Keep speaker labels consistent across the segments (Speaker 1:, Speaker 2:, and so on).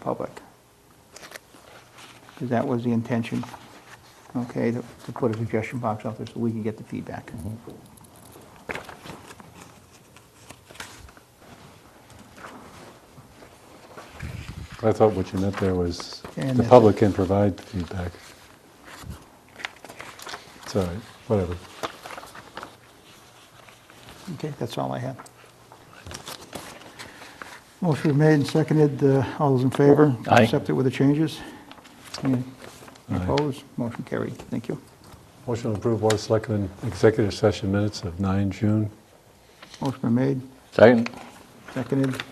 Speaker 1: public. 'Cause that was the intention, okay, to to put a suggestion box out there so we can get the feedback.
Speaker 2: I thought what you meant there was
Speaker 1: And
Speaker 2: the
Speaker 1: that's-
Speaker 2: public can provide feedback. It's all right, whatever.
Speaker 1: Okay, that's all I have. Motion made and seconded, Uh, all those in favor?
Speaker 3: Aye.
Speaker 1: Accept it with the changes? Any
Speaker 2: Aye.
Speaker 1: Opposed? Motion carried, thank you.
Speaker 2: Motion to approve Board of Selectmen executive session minutes of 9 June.
Speaker 1: Motion been made,
Speaker 3: Second?
Speaker 1: seconded.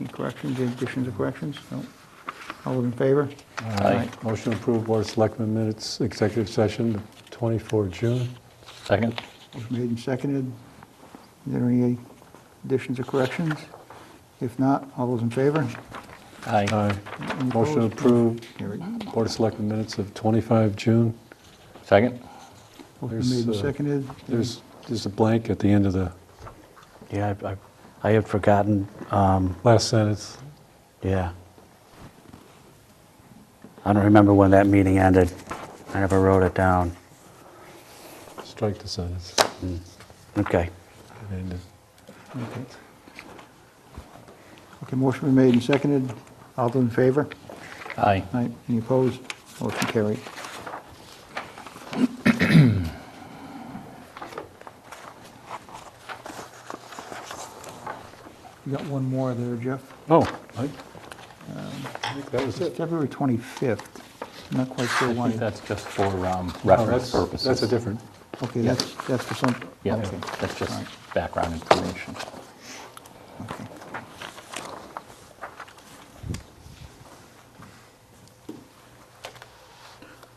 Speaker 1: Any corrections, any additions or corrections? No? All those in favor?
Speaker 3: Aye.
Speaker 2: Motion to approve Board of Selectmen minutes executive session of 24 June.
Speaker 3: Second?
Speaker 1: Motion made and seconded. Is there any additions or corrections? If not, all those in favor?
Speaker 3: Aye.
Speaker 2: Aye.
Speaker 1: Any
Speaker 2: Motion to
Speaker 1: opposed?
Speaker 2: approve
Speaker 1: Carried.
Speaker 2: Board of Selectmen minutes of 25 June.
Speaker 3: Second?
Speaker 1: Motion
Speaker 2: There's,
Speaker 1: made and
Speaker 2: uh,
Speaker 1: seconded.
Speaker 2: There's, there's a blank at the end of the
Speaker 4: Yeah, I, I, I had forgotten. Um,
Speaker 2: last sentence.
Speaker 4: yeah. I don't remember when that meeting ended. I never wrote it down.
Speaker 2: Strike the sentence.
Speaker 4: Okay.
Speaker 2: It ended.
Speaker 1: Okay, Okay. motion been made and seconded. All those in favor?
Speaker 3: Aye.
Speaker 1: Aye. Any opposed? Motion carried. You got one more there, Jeff.
Speaker 2: Oh, I I think that was
Speaker 1: It's
Speaker 2: it.
Speaker 1: February 25th. Not quite sure
Speaker 3: I
Speaker 1: why.
Speaker 3: think that's just for um,
Speaker 2: No,
Speaker 3: reference
Speaker 2: Oh, that's-
Speaker 3: purposes.
Speaker 2: That's a different,
Speaker 1: Okay, that's, that's for some,
Speaker 3: Yeah,
Speaker 1: okay.
Speaker 3: that's
Speaker 1: All
Speaker 3: just
Speaker 1: right.
Speaker 3: background information.
Speaker 1: Okay.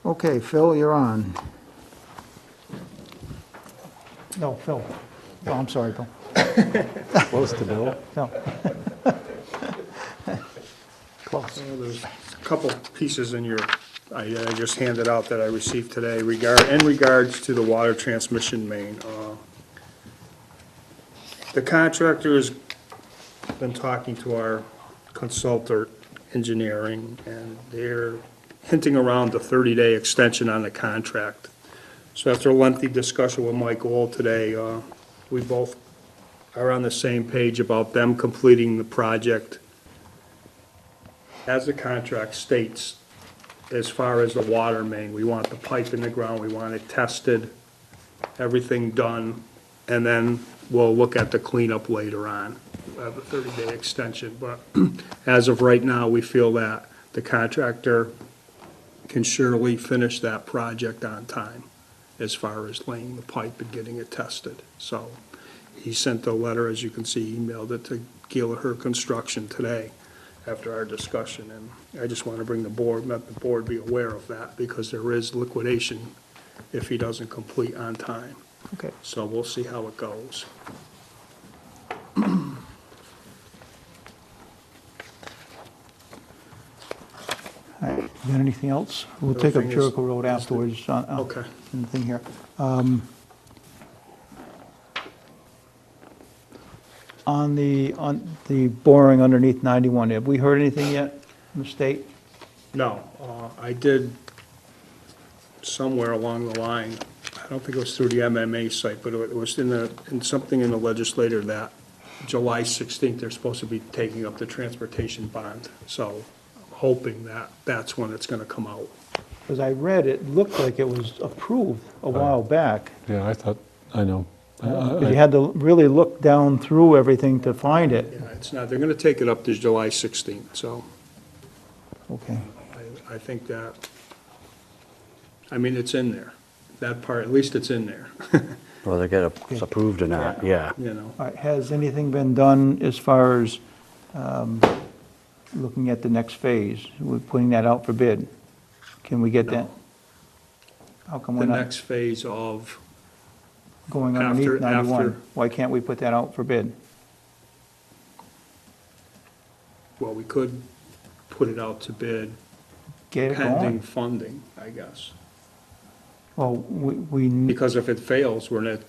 Speaker 1: Okay, Phil, you're on. No, Phil. Oh, I'm sorry, Bill.
Speaker 2: close to Bill.
Speaker 1: No. Close.
Speaker 5: Well, There's a couple pieces in your, I I just handed out that I received today regard, in regards to the water transmission main. uh, The contractor's been talking to our consultant engineering, and they're hinting around the 30-day extension on the contract. So after a lengthy discussion with Mike Gold today, uh, we both are on the same page about them completing the project as the contract states, as far as the water main, we want the pipe in the ground, we want it tested, everything done, and then we'll look at the cleanup later on, We'll have a thirty-day extension, but as of right now, we feel that the contractor can surely finish that project on time as far as laying the pipe and getting it tested, so he sent a letter, as you can see, he emailed it to Gallagher Construction today after our discussion, and I just want to bring the board, let the board be aware of that, because there is liquidation if he doesn't complete on time.
Speaker 1: Okay.
Speaker 5: So we'll see how it goes.
Speaker 1: All right, you got anything else? We'll take up
Speaker 5: Everything is-
Speaker 1: Jericho Road afterwards on, on
Speaker 5: Okay.
Speaker 1: on the thing here. Um, On the, on the boring underneath 91, have we heard anything yet from the state?
Speaker 5: No, uh, I did somewhere along the line, I don't think it was through the MMA site, but it was in the, in something in the legislator that July 16th, they're supposed to be taking up the transportation bond, so I'm hoping that that's when it's going to come out.
Speaker 1: Because I read it looked like it was approved a while back.
Speaker 2: Yeah, I thought, I know. I- uh, I-
Speaker 1: But You had to really look down through everything to find it.
Speaker 5: Yeah, it's not, they're going to take it up to July 16th, so
Speaker 1: Okay,
Speaker 5: I, I think that, I mean, it's in there. That part, at least it's in there,
Speaker 4: Whether it get it's approved or not, yeah.
Speaker 5: you know.
Speaker 1: all right, has anything been done as far as um, looking at the next phase? We're putting that out for bid. Can we get that? How come
Speaker 5: The
Speaker 1: we're not
Speaker 5: next phase of,
Speaker 1: going
Speaker 5: after-
Speaker 1: underneath
Speaker 5: after-
Speaker 1: 91? Why can't we put that out for bid?
Speaker 5: well, we could put it out to bid
Speaker 1: Get it
Speaker 5: pending
Speaker 1: going?
Speaker 5: funding, I guess.
Speaker 1: Well, we, we,
Speaker 5: Because if it fails, we're not,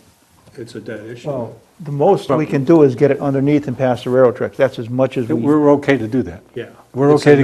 Speaker 5: it's a dead issue.
Speaker 1: well, The most we can do is get it underneath and past the railroad tracks. That's as much as we.
Speaker 2: We're okay to do that.
Speaker 5: yeah.
Speaker 2: We're okay to